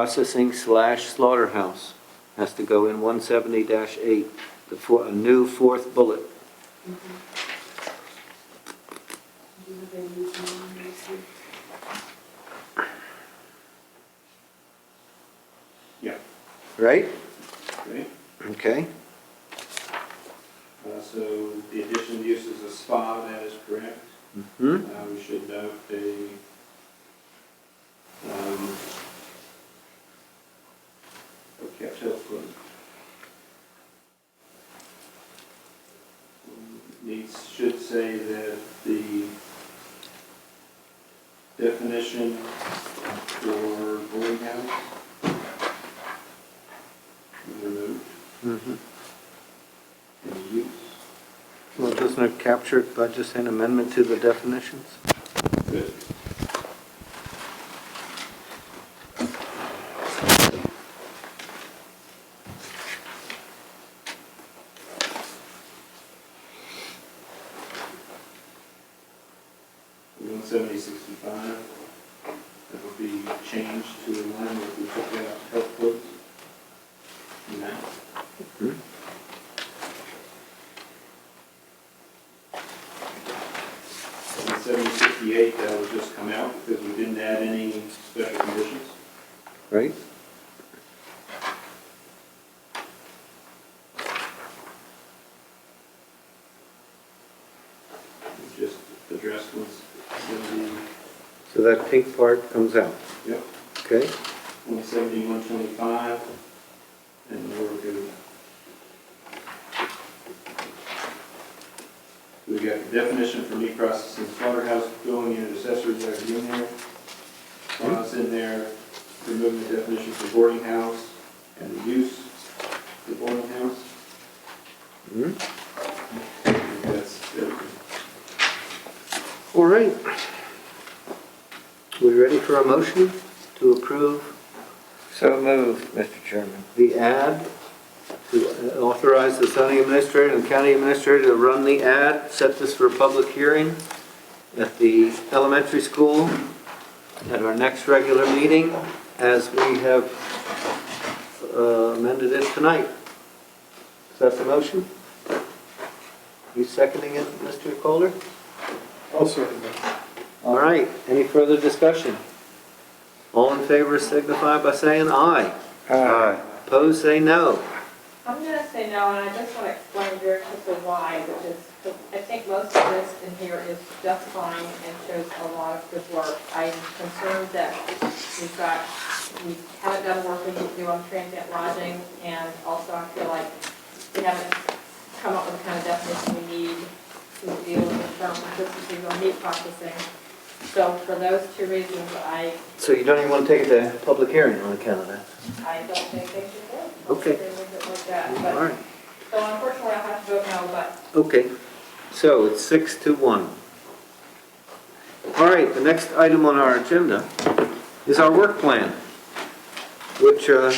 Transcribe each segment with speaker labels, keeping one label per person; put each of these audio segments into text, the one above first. Speaker 1: processing slash slaughterhouse. Has to go in one seventy eight, the four, a new fourth bullet.
Speaker 2: Yeah.
Speaker 1: Right?
Speaker 2: Okay.
Speaker 1: Okay.
Speaker 2: Uh, So the additional use is a spa, that is correct.
Speaker 1: Hmm?
Speaker 2: Uh, We should note a, um, okay, I'll tell you what. Needs, should say that the definition for boarding house is removed,
Speaker 1: Mhm.
Speaker 2: and the use.
Speaker 1: Well, doesn't it capture it by just an amendment to the definitions?
Speaker 2: Good. One seventy sixty-five, that will be changed to align with the took out health codes. And that, one seventy sixty-eight, that will just come out because we didn't add any special conditions.
Speaker 1: Right?
Speaker 2: We just addressed what's going to be,
Speaker 1: So that pink part comes out,
Speaker 2: yep.
Speaker 1: okay?
Speaker 2: 170, 125, and we're good. We got the definition for meat processing slaughterhouse, going in accessories that are in there. Clause in there, remove the definition for boarding house and the use of the boarding house.
Speaker 1: Hmm?
Speaker 2: I think That's everything.
Speaker 1: All right. We ready for a motion to approve
Speaker 3: So moved, Mr. Chairman.
Speaker 1: the ad, to authorize the zoning administrator and the county administrator to run the ad, set this for a public hearing at the elementary school at our next regular meeting, as we have uh, amended it tonight. Is that the motion? You seconding it, Mr. Kohler?
Speaker 4: I'll second that.
Speaker 1: All right, any further discussion? All in favor signify by saying aye. Opposed, say no.
Speaker 5: I'm gonna say no, and I just wanna explain very quickly why, which is, 'cause I think most of this in here is just fine and shows a lot of good work. I'm concerned that we've got, we haven't done work we need to do on transient lodging, and also I feel like we haven't come up with the kind of definition we need to deal with the term consistency on meat processing. So for those two reasons, I,
Speaker 1: So you don't even want to take it to public hearing on account of that?
Speaker 5: I don't think they should do. it.
Speaker 1: Okay.
Speaker 5: They would look at that,
Speaker 1: All
Speaker 5: but-
Speaker 1: right,
Speaker 5: So unfortunately, I'll have to vote no, but
Speaker 1: okay. So it's six to one. All right, the next item on our agenda is our work plan, which, uh,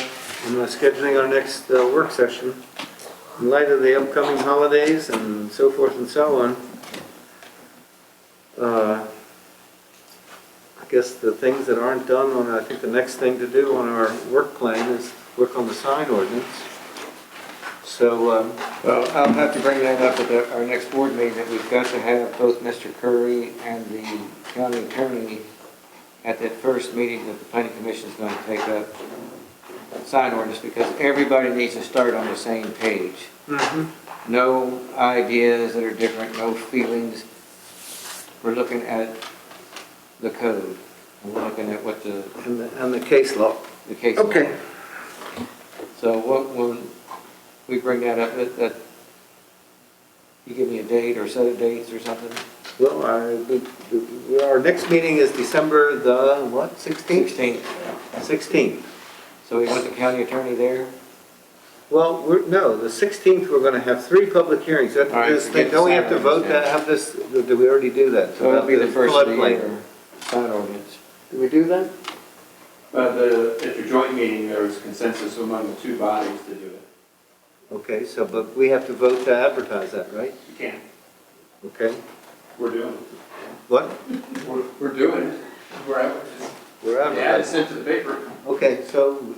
Speaker 1: in the scheduling our next uh, work session, in light of the upcoming holidays and so forth and so on, uh, I guess the things that aren't done on, I think the next thing to do on our work plan is work on the sign ordinance. So, um,
Speaker 3: Well, I'll have to bring that up at the- our next board meeting, that we've got to have both Mr. Curry and the county attorney at that first meeting that the planning commission is going to take up sign ordinance, because everybody needs to start on the same page.
Speaker 1: mhm.
Speaker 3: No ideas that are different, no feelings. We're looking at the code, and we're looking at what the,
Speaker 1: And the, and the case law.
Speaker 3: the case. law
Speaker 1: Okay,
Speaker 3: So what, when we bring that up, that, that, you give me a date or set of dates or something?
Speaker 1: well, I- we- we- our next meeting is December the, what, 16th?
Speaker 3: Sixteenth.
Speaker 1: 16th.
Speaker 3: So we want the county attorney there?
Speaker 1: Well, we're, no, the 16th, we're going to have three public hearings. That-
Speaker 3: All right,
Speaker 1: this-
Speaker 3: forget
Speaker 1: Don't we have to
Speaker 3: Saturday,
Speaker 1: vote that, have this, did we already do that?
Speaker 3: So it'll be the first of the
Speaker 1: floodplain.
Speaker 3: year, sign ordinance.
Speaker 1: Did we do that?
Speaker 2: But the, at your joint meeting, there was consensus among the two bodies to do it.
Speaker 1: Okay, so, but we have to vote to advertise that, right?
Speaker 2: You can't,
Speaker 1: Okay,
Speaker 2: we're doing
Speaker 1: what?
Speaker 2: it. We're, we're doing it. We're out.
Speaker 1: We're
Speaker 2: Yeah,
Speaker 1: advertising.
Speaker 2: it's sent to the paper.
Speaker 1: Okay, so